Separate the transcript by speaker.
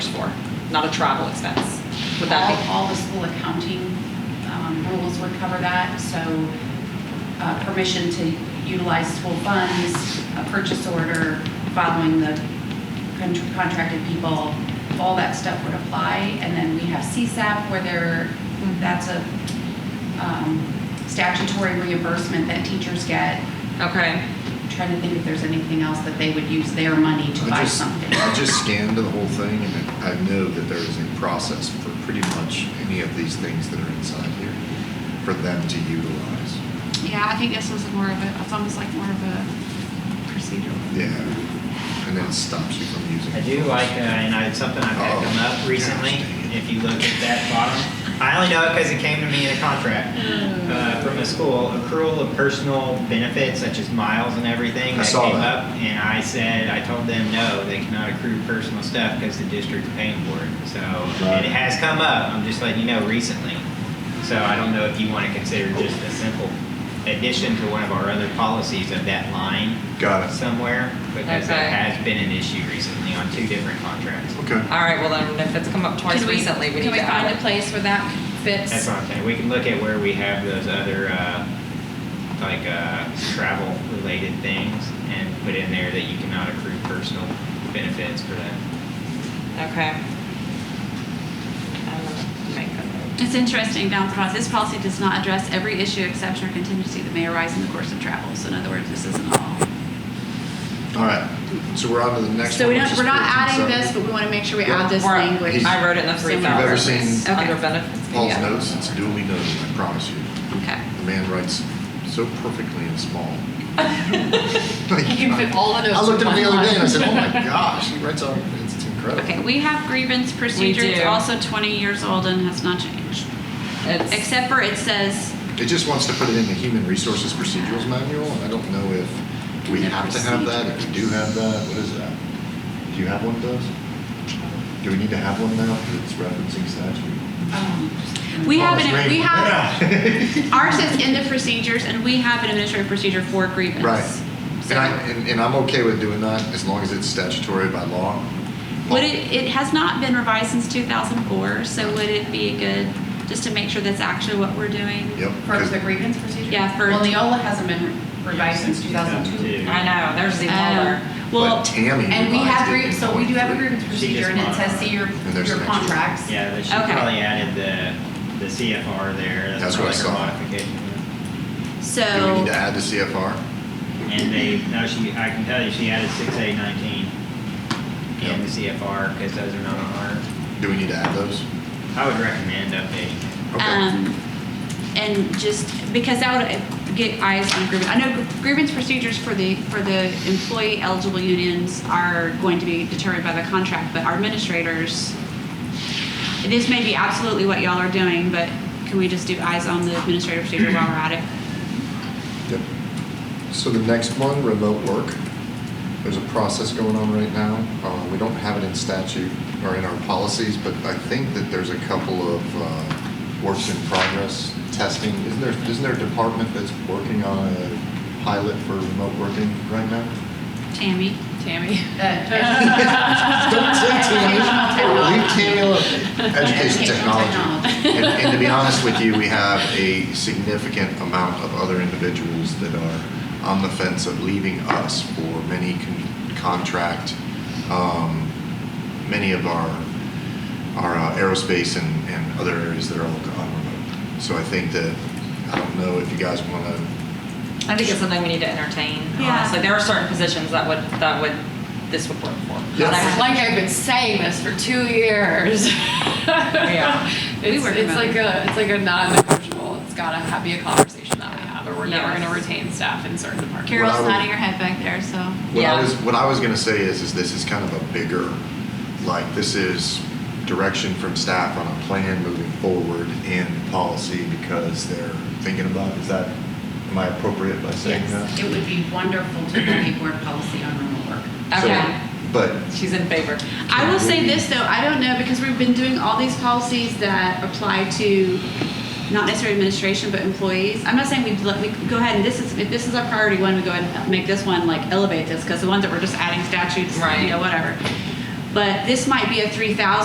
Speaker 1: not a travel expense. Would that
Speaker 2: All-
Speaker 1: be?
Speaker 2: All the school accounting um, rules would cover that, so uh, permission to utilize school funds, a purchase order, following the con- contracted people, all that stuff would apply. And then we have CSAP where there, that's a um, statutory reimbursement that teachers get.
Speaker 1: Okay,
Speaker 2: Trying to think if there's anything else that they would use their money to
Speaker 3: I
Speaker 2: buy
Speaker 3: just-
Speaker 2: something.
Speaker 3: I just scanned the whole thing and I know that there is a process for pretty much any of these things that are inside here for them to utilize.
Speaker 4: Yeah, I think this was more of a, it's almost like more of a procedural.
Speaker 3: Yeah. And then it stops you from using.
Speaker 5: I do like, uh, and I, it's something I've had come up recently, if you look at that bottom. I only know it because it came to me in a contract uh, from a school, accrual of personal benefits such as miles and everything.
Speaker 3: I
Speaker 5: that
Speaker 3: saw
Speaker 5: came
Speaker 3: that.
Speaker 5: up, And I said, I told them, no, they cannot accrue personal stuff because the district's paying for it. So,
Speaker 3: Right.
Speaker 5: and it has come up, I'm just letting you know recently. So I don't know if you want to consider just a simple addition to one of our other policies of that line
Speaker 3: Got it.
Speaker 5: somewhere because it
Speaker 1: Okay.
Speaker 5: has been an issue recently on two different contracts.
Speaker 3: Okay.
Speaker 1: all right, well then, if it's come up twice
Speaker 6: Can we-
Speaker 1: recently, we need
Speaker 6: Can
Speaker 1: to
Speaker 6: we find a
Speaker 1: add it.
Speaker 6: place where that fits?
Speaker 5: That's what I'm saying. We can look at where we have those other, uh, like, uh, travel-related things and put in there that you cannot accrue personal benefits for that.
Speaker 1: Okay. I'm gonna make a note.
Speaker 4: It's interesting down the process, this policy does not address every issue, exception, or contingency that may arise in the course of travel. So in other words, this isn't all.
Speaker 3: All right. So we're on to the next
Speaker 6: So
Speaker 3: one.
Speaker 6: we
Speaker 3: which
Speaker 6: don't,
Speaker 3: is
Speaker 6: we're not
Speaker 3: 14,
Speaker 6: adding
Speaker 3: so-
Speaker 6: this, but we want to make sure we
Speaker 3: Yeah.
Speaker 6: add this
Speaker 1: We're-
Speaker 6: language.
Speaker 1: I wrote it in the three
Speaker 6: If you've
Speaker 1: thousand.
Speaker 3: ever seen-
Speaker 1: Under
Speaker 6: Okay.
Speaker 1: benefits. but
Speaker 3: Paul's
Speaker 1: yeah.
Speaker 3: notes, it's duly noted, I promise you.
Speaker 4: Okay.
Speaker 3: The man writes so perfectly and small. Like,
Speaker 6: You can fit all the notes
Speaker 3: I looked at him
Speaker 6: in
Speaker 3: the
Speaker 6: one
Speaker 3: other day and I said, oh
Speaker 6: line.
Speaker 3: my gosh, he writes on, it's it's incredible.
Speaker 4: Okay, we have grievance procedure. It's
Speaker 1: do.
Speaker 4: also 20 years old and has not changed.
Speaker 1: It's-
Speaker 4: Except for it says,
Speaker 3: It just wants to put it in the Human Resources Procedures Manual, and I don't know if we have to have that, if we do have that, what is that? Do you have one of those? Do we need to have one now that's referencing statute?
Speaker 2: Um,
Speaker 4: we have,
Speaker 3: Paul's
Speaker 4: an we
Speaker 3: reading.
Speaker 4: have,
Speaker 3: Yeah.
Speaker 4: ours says in the procedures, and we have an administrative procedure for grievance.
Speaker 3: Right.
Speaker 4: So-
Speaker 3: And I, and and I'm okay with doing that, as long as it's statutory by law.
Speaker 4: Would it, it has not been revised since 2004, so would it be good, just to make sure that's actually what we're doing?
Speaker 3: Yep.
Speaker 2: For
Speaker 3: 'cause-
Speaker 2: the grievance procedure?
Speaker 4: Yeah, for-
Speaker 2: Well, Neola hasn't been revised since 2002.
Speaker 1: I know, there's even older.
Speaker 4: Um,
Speaker 3: but
Speaker 4: Well,
Speaker 3: Tammy.
Speaker 2: And we have,
Speaker 3: revised it
Speaker 2: grie-
Speaker 3: in
Speaker 2: so we do have a
Speaker 3: 23.
Speaker 2: grievance procedure, and it says, see your,
Speaker 3: And there's
Speaker 2: your
Speaker 3: an extra.
Speaker 2: contracts.
Speaker 5: Yeah, they should
Speaker 4: Okay.
Speaker 5: probably added the, the CFR there.
Speaker 3: That's what I
Speaker 5: probably
Speaker 3: saw.
Speaker 5: her Modification.
Speaker 3: Do we
Speaker 4: so,
Speaker 3: need to add the CFR?
Speaker 5: And they, no, she, I can tell you, she added six A nineteen
Speaker 3: Yeah.
Speaker 5: in the CFR, because those are not on our,
Speaker 3: Do we need to add those?
Speaker 5: I would recommend updating.
Speaker 3: Okay.
Speaker 4: um, and just, because that would get eyes on grievance. I know grievance procedures for the, for the employee eligible unions are going to be determined by the contract, but our administrators, this may be absolutely what y'all are doing, but can we just do eyes on the administrative procedure while we're at it?
Speaker 3: Yep. So the next one, remote work. There's a process going on right now. Uh, we don't have it in statute or in our policies, but I think that there's a couple of uh, works in progress testing. Isn't there, isn't there a department that's working on a pilot for remote working right now?
Speaker 4: Tammy?
Speaker 6: Tammy.
Speaker 2: Uh,
Speaker 3: Don't say too much. Leave Tammy alone. Education
Speaker 2: Education
Speaker 3: technology.
Speaker 2: technology.
Speaker 3: And, and to be honest with you, we have a significant amount of other individuals that are on the fence of leaving us for many con- contract, um, many of our, our uh, aerospace and, and other areas that are all gone remote. So I think that, I don't know if you guys want to,
Speaker 1: I think it's something we need to entertain,
Speaker 4: Yeah.
Speaker 1: honestly. There are certain positions that would, that would, this would work for.
Speaker 3: Yeah.
Speaker 1: Not
Speaker 6: It's
Speaker 1: every-
Speaker 6: like I've been saying this for two years.
Speaker 1: Yeah.
Speaker 4: We
Speaker 6: It's,
Speaker 4: work
Speaker 6: it's
Speaker 4: remotely.
Speaker 6: like a, it's like a non-negotiable, it's gotta ha- be a conversation that we have, or we're never
Speaker 1: Yes.
Speaker 6: gonna retain staff in certain departments.
Speaker 4: Carol's
Speaker 3: Well, I would-
Speaker 4: nodding her head back there, so.
Speaker 3: what
Speaker 1: Yeah.
Speaker 3: I was, what I was going to say is, is this is kind of a bigger, like, this is direction from staff on a plan moving forward and policy because they're thinking about, is that, am I appropriate by saying
Speaker 2: Yes,
Speaker 3: that?
Speaker 2: it would be wonderful to have a board policy on remote work.
Speaker 3: So-
Speaker 1: Okay,
Speaker 3: But
Speaker 1: she's in favor.
Speaker 4: I will say this though, I don't know, because we've been doing all these policies that apply to not necessarily administration, but employees. I'm not saying we let, we go ahead and this is, if this is our priority one, we go ahead and make this one, like elevate this, because the ones that we're just adding statutes,
Speaker 1: Right.
Speaker 4: you know, whatever. But this might be a three thousand